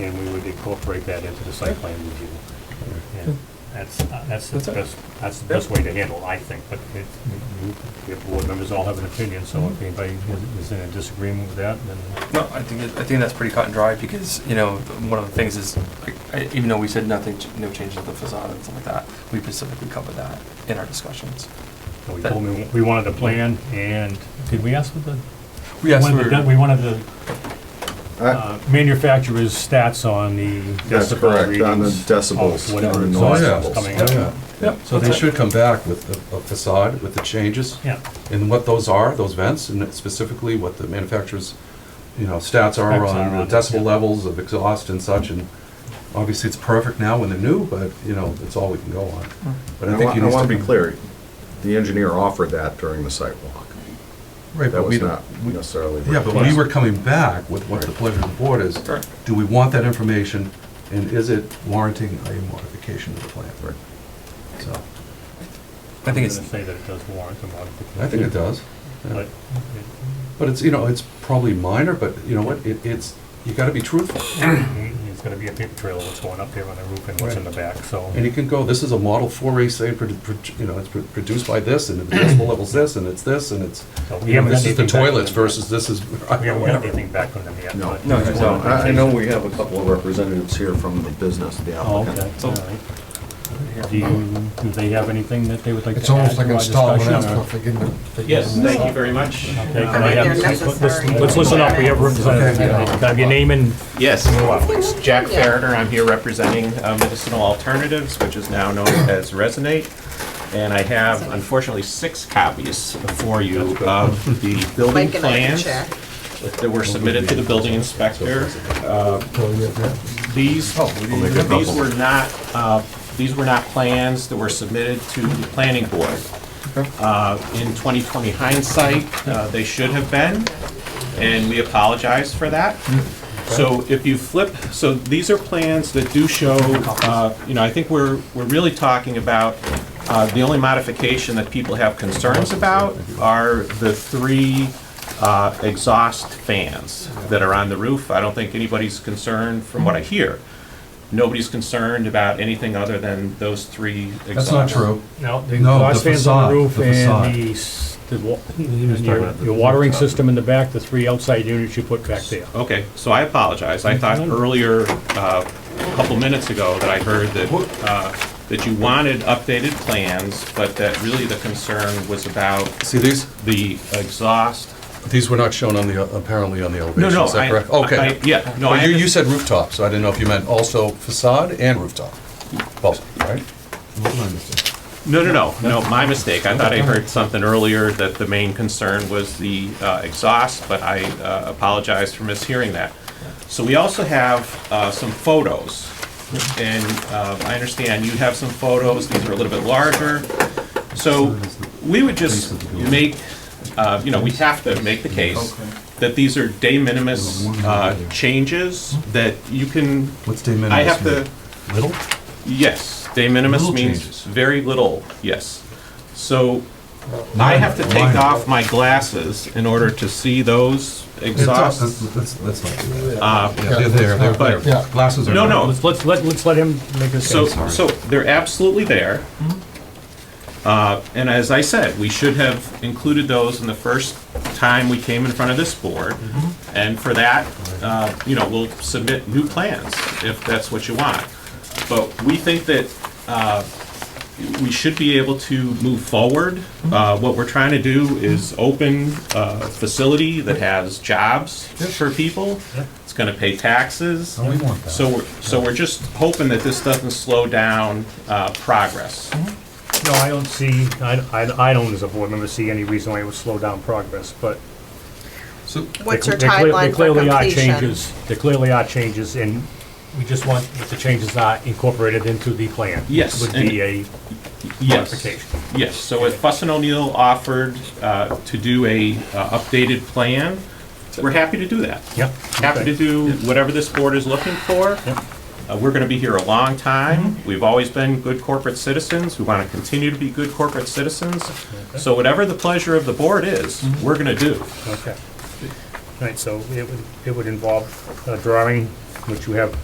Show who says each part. Speaker 1: incorporate that into the site plan review. And That's, uh, that's
Speaker 2: That's
Speaker 1: the
Speaker 2: it.
Speaker 1: best, that's the best way to handle, it, I think, but it, you- your board members all have an opinion, so if anybody is- is in a disagreement with that, then
Speaker 2: No, I think, it- I think that's pretty cut and dry, because, you know, one of the things is, like, I- even though we said nothing, ch- no changes to the facade and stuff like that, we specifically covered that in our discussions.
Speaker 1: so we told them we wanted a plan, and did we ask for the?
Speaker 2: We asked
Speaker 1: wanted the-
Speaker 2: for,
Speaker 1: We wanted the
Speaker 3: Uh,
Speaker 1: uh, manufacturer's stats on the
Speaker 3: That's
Speaker 1: decibel
Speaker 3: correct,
Speaker 1: readings.
Speaker 3: on the
Speaker 1: of
Speaker 3: decibels.
Speaker 1: whatever
Speaker 3: or
Speaker 1: the
Speaker 3: noise
Speaker 1: noise
Speaker 4: yeah.
Speaker 1: was coming
Speaker 2: Yeah.
Speaker 1: out.
Speaker 4: Yeah,
Speaker 2: Yep,
Speaker 4: so they
Speaker 2: that's it.
Speaker 4: should come back with a a facade, with the changes,
Speaker 1: Yeah,
Speaker 4: and what those are, those vents, and specifically what the manufacturer's, you know, stats are
Speaker 1: Specs are
Speaker 4: on
Speaker 1: on
Speaker 4: the decibel
Speaker 1: it.
Speaker 4: levels of exhaust and such, and obviously it's perfect now when they're new, but, you know, it's all we can go on. But
Speaker 3: I
Speaker 4: I think
Speaker 3: want,
Speaker 4: you
Speaker 3: Mm. I
Speaker 4: need
Speaker 3: want to be
Speaker 4: come-
Speaker 3: clear, the engineer offered that during the site walk.
Speaker 4: Right,
Speaker 3: That
Speaker 4: but we
Speaker 3: was
Speaker 4: don't.
Speaker 3: not
Speaker 4: we-
Speaker 3: necessarily.
Speaker 4: Yeah, but we
Speaker 3: requested.
Speaker 4: were coming back with what the pleasure of the board is.
Speaker 2: Correct.
Speaker 4: Do we want that information, and is it warranting a modification of the plan?
Speaker 3: Right.
Speaker 4: So,
Speaker 2: I think
Speaker 1: I'm
Speaker 2: it's,
Speaker 1: gonna say that it does warrant a modification.
Speaker 4: I think it does. Yeah.
Speaker 1: But,
Speaker 4: But it's, you know, it's probably minor, but you know what, it, it's, you gotta be truthful.
Speaker 1: it- it's gonna be a paper trail of what's going up there on the roof and what's in the back, so.
Speaker 4: And you can go, this is a Model 4A, say, produ- produ- you know, it's pro- produced by this, and the decibel level's this, and it's this, and it's,
Speaker 1: so we
Speaker 4: you know,
Speaker 1: haven't
Speaker 4: this
Speaker 1: got
Speaker 4: is the
Speaker 1: anything back from
Speaker 4: toilets
Speaker 1: them.
Speaker 4: versus this is,
Speaker 1: We haven't got
Speaker 4: whatever.
Speaker 1: anything back from them yet.
Speaker 3: No.
Speaker 1: but-
Speaker 2: No, you don't.
Speaker 3: I, I know we have a couple of representatives here from the business, the
Speaker 1: Oh,
Speaker 3: applicant.
Speaker 1: okay, all right. Do you, do they have anything that they would like to add
Speaker 5: It's
Speaker 1: to our
Speaker 5: almost like
Speaker 1: discussion?
Speaker 5: installment
Speaker 1: or-
Speaker 5: stuff, they get them.
Speaker 6: Yes, thank you very much.
Speaker 1: Okay,
Speaker 6: Uh,
Speaker 1: can I
Speaker 7: They're
Speaker 1: have- let's- let's-
Speaker 7: necessary.
Speaker 1: Let's listen up, we have representatives,
Speaker 4: Okay.
Speaker 1: can I have your name and?
Speaker 6: Yes, it's Jack Fariner, I'm here representing uh, Medicinal Alternatives, which is now known as Resonate. And I have unfortunately six copies for you of the building
Speaker 7: Mike and I can
Speaker 6: plans
Speaker 7: check.
Speaker 6: that were submitted to the building inspector. Uh, These, these were not, uh, these were not plans that were submitted to the planning board. Uh, In 2020 hindsight, uh, they should have been, and we apologize for that.
Speaker 4: Mm,
Speaker 6: So if you flip, so these are plans that do show, uh, you know, I think we're, we're really talking about, uh, the only modification that people have concerns about are the three uh, exhaust fans that are on the roof. I don't think anybody's concerned, from what I hear, nobody's concerned about anything other than those three exhausts.
Speaker 4: That's not true.
Speaker 1: No, the
Speaker 4: No, the
Speaker 1: exhaust fans on the
Speaker 4: facade,
Speaker 1: roof
Speaker 4: the
Speaker 1: and
Speaker 4: facade.
Speaker 1: the, s- the wa-
Speaker 4: talking
Speaker 1: your
Speaker 4: about the
Speaker 1: your watering system in the back, the three outside units you put back there.
Speaker 6: Okay, so I apologize. I thought earlier, uh, a couple minutes ago, that I heard that, uh, that you wanted updated plans, but that really the concern was about
Speaker 4: See, these,
Speaker 6: the exhaust.
Speaker 4: these were not shown on the, apparently on the
Speaker 6: No,
Speaker 4: elevation,
Speaker 6: no,
Speaker 4: is
Speaker 6: I,
Speaker 4: that correct?
Speaker 6: I,
Speaker 4: Okay.
Speaker 6: yeah, no,
Speaker 4: But
Speaker 6: I,
Speaker 4: you, you
Speaker 6: under-
Speaker 4: said rooftop, so I didn't know if you meant also facade and rooftop, both, right?
Speaker 6: no, no, no, no, my mistake. I thought I heard something earlier that the main concern was the, uh, exhaust, but I, uh, apologize for mishearing that. So we also have, uh, some photos. And, uh, I understand you have some photos. These are a little bit larger. So we would just make, uh, you know, we have to make the case that these are de minimis, uh, changes that you can,
Speaker 4: What's de minimis?
Speaker 6: I have to,
Speaker 4: mean? Little?
Speaker 6: Yes, de minimis
Speaker 4: Little
Speaker 6: means
Speaker 4: changes.
Speaker 6: very little, yes. So I have to take
Speaker 4: Minor.
Speaker 6: off my glasses in order to see those
Speaker 4: It's up- Let's,
Speaker 6: exhausts.
Speaker 4: let's- let's not do that.
Speaker 6: Uh,
Speaker 4: Yeah, They're there, they're there.
Speaker 6: But-
Speaker 4: Glasses are.
Speaker 6: No,
Speaker 4: not-
Speaker 6: no,
Speaker 1: Let's, let's, let- let's let him make his
Speaker 6: So,
Speaker 1: case.
Speaker 4: sorry.
Speaker 6: so they're absolutely there. Uh, And as I said, we should have included those in the first time we came in front of this board. And for that, uh, you know, we'll submit new plans if that's what you want. But we think that uh, we should be able to move forward. Uh, What we're trying to do is open a facility that has jobs for people. It's going to pay taxes.
Speaker 4: No, We want that.
Speaker 6: So we're, so we're just hoping that this doesn't slow down uh, progress.
Speaker 1: Mm-hmm. No, I don't see, I, I, I don't as a board member see any reason why it would slow down progress, but.
Speaker 4: So,
Speaker 7: What's
Speaker 1: they-
Speaker 7: your
Speaker 1: they clear-
Speaker 7: timeline
Speaker 1: they
Speaker 7: for
Speaker 1: clearly are
Speaker 7: completion?
Speaker 1: changes. There clearly are changes, and we just want that the changes are incorporated into the plan.
Speaker 6: Yes,
Speaker 1: Would
Speaker 6: and-
Speaker 1: be a
Speaker 6: Yes,
Speaker 1: modification.
Speaker 6: yes. So if Fuss and O'Neill offered uh, to do a uh, updated plan, we're happy to do that.
Speaker 1: Yep.
Speaker 6: Happy to do whatever this board is looking for.
Speaker 1: Yep. Mm-hmm.
Speaker 6: Uh, We're going to be here a long time. We've always been good corporate citizens. We want to continue to be good corporate citizens. So whatever the pleasure of the board is,
Speaker 1: Mm-hmm.
Speaker 6: we're going to do.
Speaker 1: Okay. All right, so it would, it would involve a drawing, which you have